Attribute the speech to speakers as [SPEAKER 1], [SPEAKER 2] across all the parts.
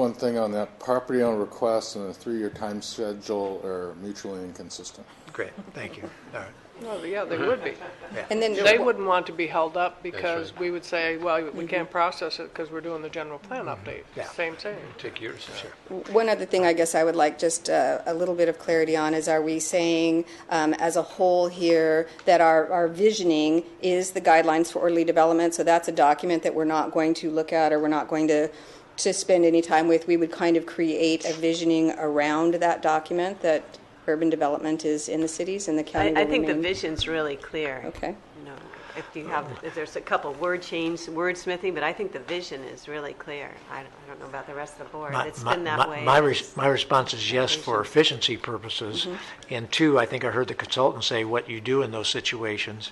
[SPEAKER 1] One thing on that, property owner requests and a three-year time schedule are mutually inconsistent.
[SPEAKER 2] Great, thank you. All right.
[SPEAKER 3] Well, yeah, they would be.
[SPEAKER 4] And then,
[SPEAKER 3] They wouldn't want to be held up because we would say, well, we can't process it because we're doing the general plan update.
[SPEAKER 2] Mm-hmm. Yeah.
[SPEAKER 3] Same thing.
[SPEAKER 2] Take yours, sure.
[SPEAKER 4] one other thing I guess I would like just uh, a little bit of clarity on is are we saying um, as a whole here that our, our visioning is the guidelines for orderly development? So that's a document that we're not going to look at or we're not going to, to spend any time with. We would kind of create a visioning around that document that urban development is in the cities and the county
[SPEAKER 5] I, I
[SPEAKER 4] will
[SPEAKER 5] think the
[SPEAKER 4] remain-
[SPEAKER 5] vision's really clear.
[SPEAKER 4] Okay.
[SPEAKER 5] You know, if you have, if there's a couple word change, wordsmithing, but I think the vision is really clear. I don't, I don't know about the rest of the board.
[SPEAKER 2] My-
[SPEAKER 5] It's
[SPEAKER 2] my-
[SPEAKER 5] been
[SPEAKER 2] my-
[SPEAKER 5] that way.
[SPEAKER 2] My, res- my response is yes for efficiency purposes.
[SPEAKER 5] Mm-hmm.
[SPEAKER 2] And two, I think I heard the consultant say what you do in those situations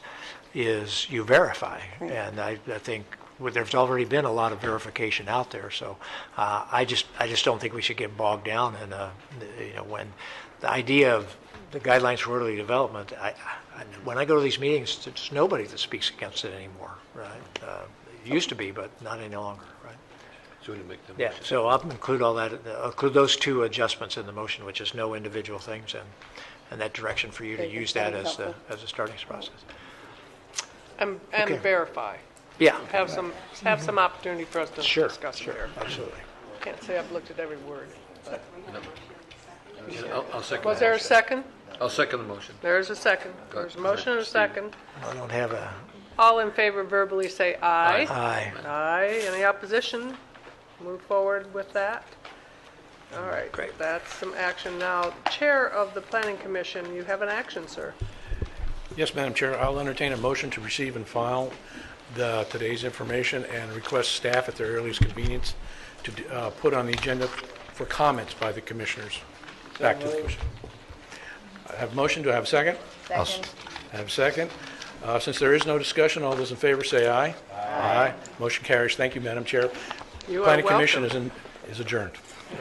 [SPEAKER 2] is you verify. And I, I think well, there's already been a lot of verification out there. So uh, I just, I just don't think we should get bogged down in, uh, you know, when the idea of the guidelines for orderly development, I, I, when I go to these meetings, there's nobody that speaks against it anymore, right? Uh, It used to be, but not any longer, right?
[SPEAKER 6] So we need to make the
[SPEAKER 2] Yeah,
[SPEAKER 6] motion.
[SPEAKER 2] so I'll include all that, I'll include those two adjustments in the motion, which is no individual things, and, and that direction for you to
[SPEAKER 4] Great,
[SPEAKER 2] use that
[SPEAKER 4] that'd be
[SPEAKER 2] as the,
[SPEAKER 4] helpful.
[SPEAKER 2] as a starting process.
[SPEAKER 3] And, and
[SPEAKER 2] Okay.
[SPEAKER 3] verify.
[SPEAKER 2] Yeah,
[SPEAKER 3] Have some, have some opportunity for us to
[SPEAKER 2] sure,
[SPEAKER 3] discuss
[SPEAKER 2] sure,
[SPEAKER 3] here.
[SPEAKER 2] absolutely.
[SPEAKER 3] Can't say I've looked at every word.
[SPEAKER 6] And I'll, I'll second.
[SPEAKER 3] Was
[SPEAKER 6] the
[SPEAKER 3] there a
[SPEAKER 6] motion.
[SPEAKER 3] second?
[SPEAKER 6] I'll second the motion.
[SPEAKER 3] There is a second. There's a motion and a second.
[SPEAKER 2] I don't have a,
[SPEAKER 3] All in favor verbally say aye.
[SPEAKER 2] aye,
[SPEAKER 3] Aye. Any opposition? Move forward with that. All right.
[SPEAKER 2] Great.
[SPEAKER 3] That's some action. Now, Chair of the Planning Commission, you have an action, sir.
[SPEAKER 7] Yes, Madam Chair, I'll entertain a motion to receive and file the, today's information and request staff at their earliest convenience to uh, put on the agenda for comments by the commissioners, back to the commission. I have motion, do I have a second? I have a second. Uh, Since there is no discussion, all those in favor say aye. Aye. Motion carries. Thank you, Madam Chair.
[SPEAKER 3] You are
[SPEAKER 7] Planning Commission is
[SPEAKER 3] welcome.
[SPEAKER 7] in- is adjourned.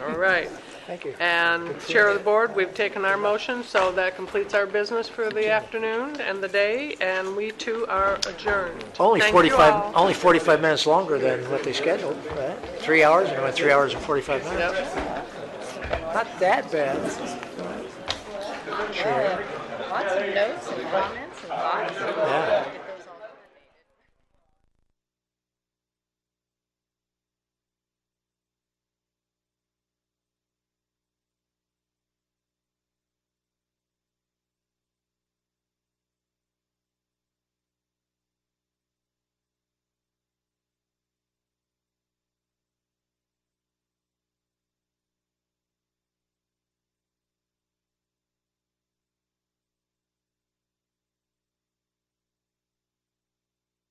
[SPEAKER 3] All right.
[SPEAKER 2] thank you.
[SPEAKER 3] And Chair of the Board, we've taken our motion, so that completes our business for the afternoon and the day, and we too are adjourned.
[SPEAKER 2] Only
[SPEAKER 3] Thank you all.
[SPEAKER 2] forty-five, only forty-five minutes longer than what they scheduled, right? Three hours, and it went three hours and forty-five minutes.
[SPEAKER 3] Yep.
[SPEAKER 2] Not that bad.
[SPEAKER 8] Lots of notes and comments and thoughts.
[SPEAKER 2] Yeah.